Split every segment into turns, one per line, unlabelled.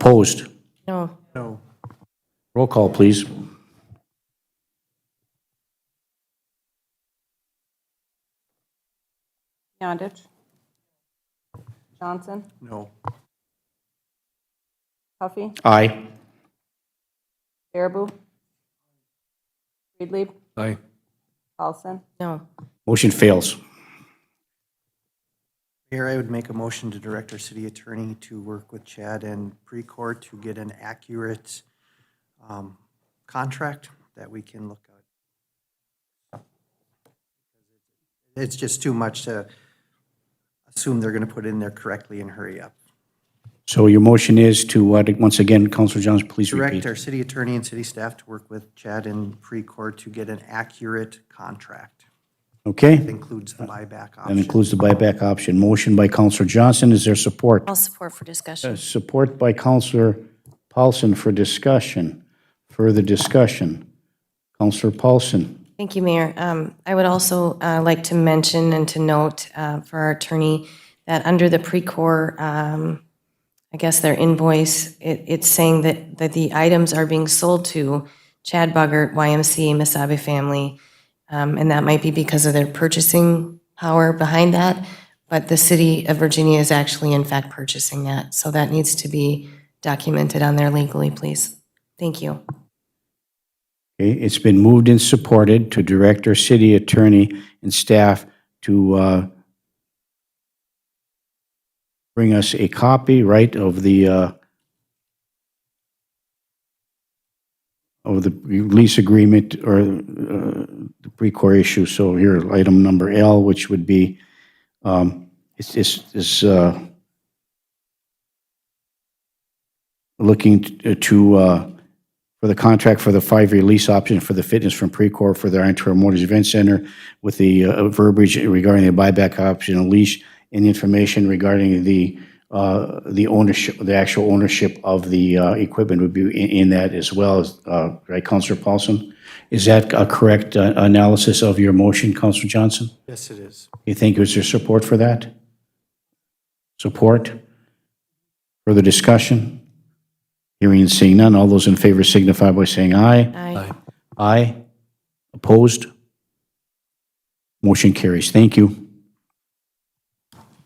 Opposed?
No.
No.
Roll call, please.
Yondich. Johnson.
No.
Huffy.
Aye.
Baraboo. Freedle.
Aye.
Paulson.
No.
Motion fails.
Mayor, I would make a motion to direct our city attorney to work with Chad and Precor to get an accurate um, contract that we can look at. It's just too much to assume they're going to put in there correctly and hurry up.
So your motion is to, what, once again, Counselor Johns, please repeat.
Direct our city attorney and city staff to work with Chad and Precor to get an accurate contract. That
Okay,
includes the buyback
that
option.
includes the buyback option. Motion by Counselor Johnson, is there support?
I'll support for discussion.
Support by Counselor Paulson for discussion. Further discussion. Counselor Paulson.
Thank you, Mayor. Um, I would also uh, like to mention and to note uh, for our attorney that under the Precor, um, I guess their invoice, it- it's saying that that the items are being sold to Chad Buggert, YMCA, Misabe family, Um, and that might be because of their purchasing power behind that, but the city of Virginia is actually in fact purchasing that. So that needs to be documented on there legally, please. Thank you.
Okay, it's been moved and supported to direct our city attorney and staff to uh, bring us a copy, right, of the, uh, of the lease agreement or uh, the Precor issue. So here, item number L, which would be, um, it's, it's, it's uh, looking t- to, uh, for the contract for the five-year lease option for the fitness from Precor for their Antero Motors Event Center with the uh, verbiage regarding the buyback option and lease and information regarding the, uh, the ownership, the actual ownership of the uh, equipment would be in in that as well, as, uh, right, Counselor Paulson? Is that a correct uh, analysis of your motion, Counselor Johnson?
Yes, it is.
You think, is there support for that? Support? Further discussion? Hearing and seeing none, all those in favor signify by saying aye.
Aye.
Aye. Opposed? Motion carries. Thank you.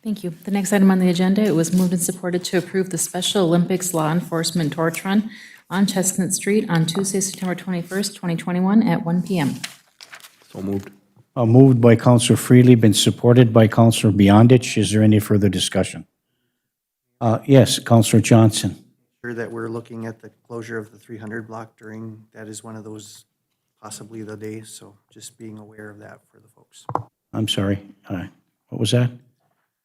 Thank you. The next item on the agenda, it was moved and supported to approve the Special Olympics Law Enforcement Torch Run on Chestnut Street on Tuesday, September 21st, 2021, at 1 PM.
Uh, Moved by Counselor Freely, been supported by Counselor Beyondich. Is there any further discussion? Uh, Yes, Counselor Johnson.
sure that we're looking at the closure of the 300 block during, that is one of those, possibly the day, so just being aware of that for the folks.
I'm sorry. Uh, What was that?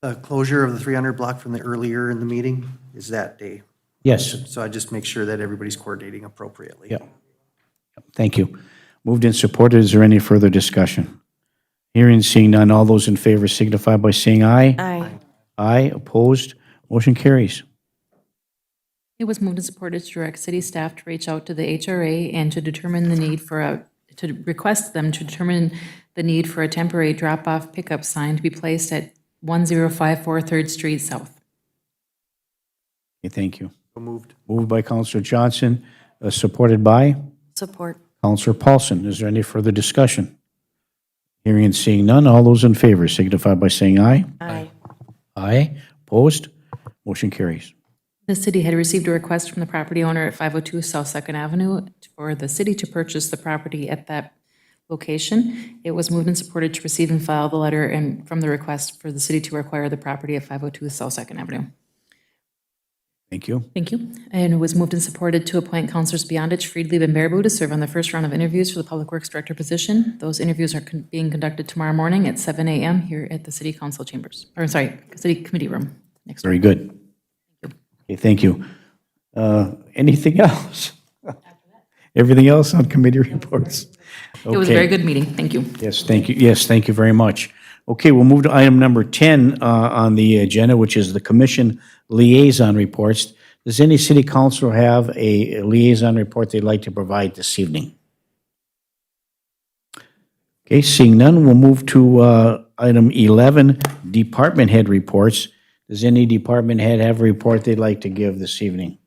The closure of the 300 block from the earlier in the meeting is that day,
Yes.
so I just make sure that everybody's coordinating appropriately.
Yeah. Thank you. Moved and supported. Is there any further discussion? Hearing, seeing none. All those in favor signify by saying aye.
Aye.
Aye. Opposed? Motion carries.
It was moved and supported to direct city staff to reach out to the HRA and to determine the need for a, to request them to determine the need for a temporary drop-off pickup sign to be placed at 1054 Third Street South.
Okay, Thank you.
So moved.
Moved by Counselor Johnson, uh, supported by
Support.
Counselor Paulson. Is there any further discussion? Hearing and seeing none, all those in favor signify by saying aye.
Aye.
Aye. Opposed? Motion carries.
The city had received a request from the property owner at 502 South Second Avenue for the city to purchase the property at that location. It was moved and supported to receive and file the letter and from the request for the city to acquire the property at 502 South Second Avenue.
Thank you.
Thank you. And it was moved and supported to appoint Counselors Beyondich, Friedlieb, and Baraboo to serve on the first round of interviews for the Public Works Director position. Those interviews are con- being conducted tomorrow morning at 7 a.m. here at the City Council chambers, or sorry, City Committee Room. Next
Very good. Okay, thank you. Uh, Anything else? Everything else on committee reports?
It was a very good meeting. Thank you.
Yes, thank you. Yes, thank you very much. Okay, we'll move to item number 10 uh, on the agenda, which is the commission liaison reports. Does any city council have a liaison report they'd like to provide this evening? Okay, seeing none, we'll move to uh, item 11, department head reports. Does any department head have a report they'd like to give this evening?